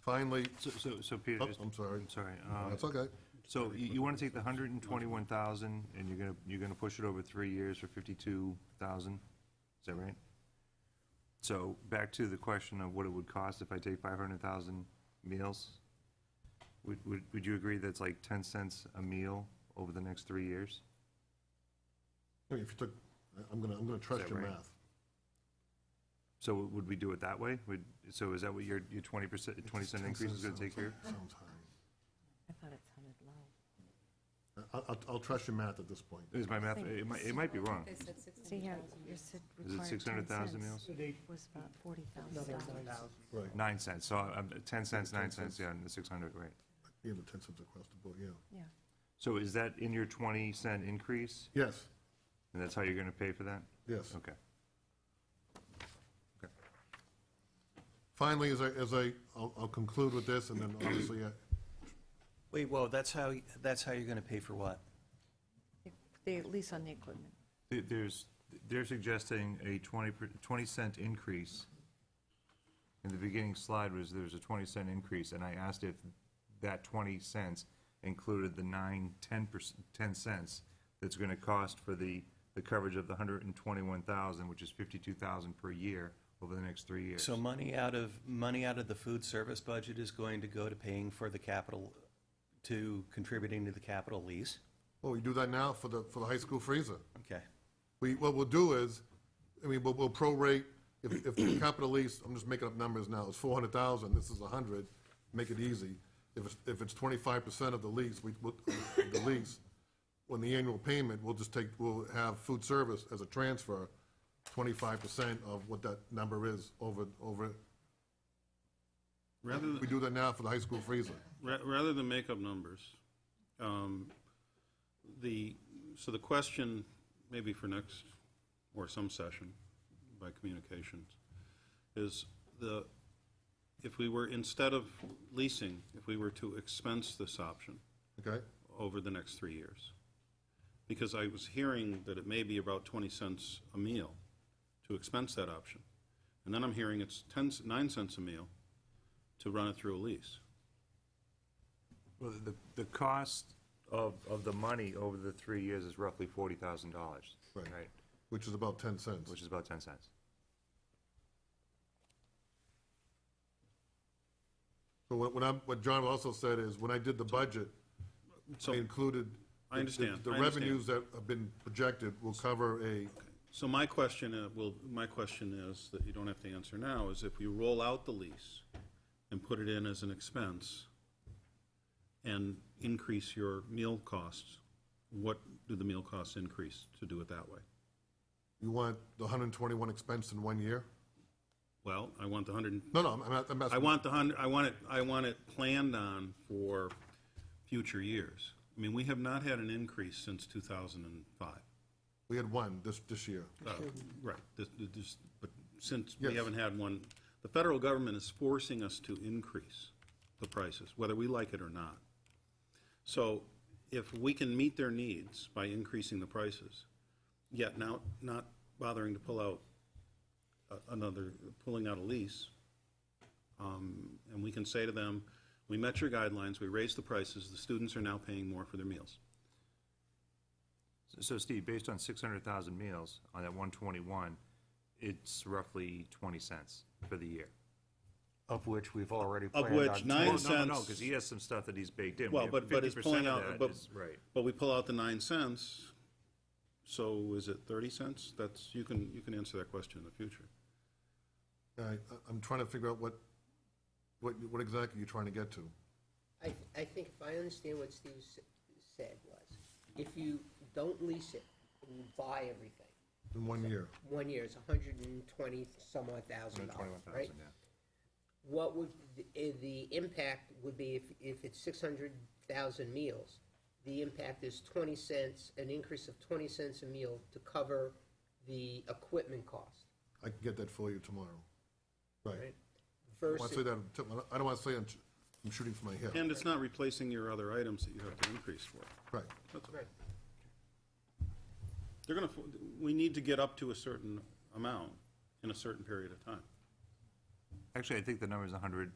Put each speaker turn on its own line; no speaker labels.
finally,
So, so, so Peter,
Oh,
just.
I'm sorry.
I'm sorry. um,
that's okay.
So you, you wanna take the hundred and twenty-one thousand, and you're gonna, you're gonna push it over three years for fifty-two thousand? Is that right? So, back to the question of what it would cost if I take five hundred thousand meals? Would, would, would you agree that's like ten cents a meal over the next three years?
I mean, If you took, I- I'm gonna, I'm gonna trust
that
your
right?
math.
So would we do it that way? Would, so is that what your, your twenty percent, twenty cent increase is gonna take care?
Sounds high.
I thought it sounded low.
I- I'll, I'll trust your math at this point.
Is my math, it might, it might be wrong.
So yeah, your said
Is it
required
six hundred thousand meals?
was about forty thousand dollars.
Right.
Nine cents, so I'm, ten cents, nine cents, yeah, and the six hundred, right.
You have the ten cents across the board, yeah.
Yeah,
So is that in your twenty cent increase?
Yes,
And that's how you're gonna pay for that?
yes.
Okay.
Finally, as I, as I, I'll, I'll conclude with this, and then obviously, uh, I-
Wait, whoa, that's how, that's how you're gonna pay for what?
the lease on the equipment.
There- There's, they're suggesting a twenty per- 20 cent increase. In the beginning slide was, there was a twenty cent increase, and I asked if that twenty cents included the nine, ten percent, ten cents that's gonna cost for the, the coverage of the hundred and twenty-one thousand, which is fifty-two thousand per year over the next three years.
So money out of, money out of the food service budget is going to go to paying for the capital, to contributing to the capital lease?
oh, we do that now for the, for the high school freezer.
Okay.
We, what we'll do is, I mean, we'll, we'll prorate, if, if the capital lease, I'm just making up numbers now, it's four hundred thousand, this is a hundred, make it easy. If it's, if it's twenty-five percent of the lease, we, we'll- the lease, on the annual payment, we'll just take, we'll have food service as a transfer, twenty-five percent of what that number is over, over,
Rather
we
than,
do that now for the high school freezer.
ra- rather than make up numbers, um, the, so the question, maybe for next, or some session by communications, is the, if we were, instead of leasing, if we were to expense this option
Okay?
over the next three years. Because I was hearing that it may be about 20 cents a meal to expense that option. And then I'm hearing it's 10, c- 9 cents a meal to run it through a lease.
Well, the, the cost of, of the money over the three years is roughly forty thousand dollars,
Right.
right?
Which is about ten cents.
Which is about ten cents.
So what, what I'm, what John also said is, when I did the budget,
So,
I included.
I understand,
The the
I understand.
revenues that have been projected will cover a,
so my question, uh, well, my question is, that you don't have to answer now, is if we roll out the lease and put it in as an expense and increase your meal costs, what do the meal costs increase to do it that way?
you want the hundred and twenty-one expense in one year?
Well, I want the 100, and-
No, no, I'm, I'm- I'm
I
asking,
want the hundred, I want it, I want it planned on for future years. I mean, we have not had an increase since two thousand and five.
we had one this, this year.
Oh, Right, this, this, but since we
Yes.
haven't had one, the federal government is forcing us to increase the prices, whether we like it or not. So if we can meet their needs by increasing the prices, yet now not bothering to pull out a- another, pulling out a lease, um, and we can say to them, we met your guidelines, we raised the prices, the students are now paying more for their meals.
So- So Steve, based on six hundred thousand meals on that one twenty-one, it's roughly twenty cents for the year.
Of which we've already
Of
planned on.
which
two.
nine
Well, no, no, no,
cents.
because he has some stuff that he's baked in.
Well, but, but it's pulling
50% of
out,
that
but,
is- Right.
but we pull out the nine cents, so is it thirty cents? That's, you can, you can answer that question in the future.
I, I'm trying to figure out what, what, what exactly you're trying to get to.
I, I think if I understand what Steve s- said was, if you don't lease it and you buy everything,
In one year,
one year it's a hundred and twenty some odd thousand dollars, right?
yeah.
What would, the, eh, the impact would be if, if it's six hundred thousand meals, the impact is twenty cents, an increase of twenty cents a meal to cover the equipment cost,
I can get that for you tomorrow. Right.
right?
I want to say
Versus,
that, on tip- I don't want to say I'm, I'm shooting from my hip.
And it's not replacing your other items that you have to increase for.
Right.
That's all.
right,
They're gonna, fo- we need to get up to a certain amount in a certain period of time.
Actually, I think the number is a hundred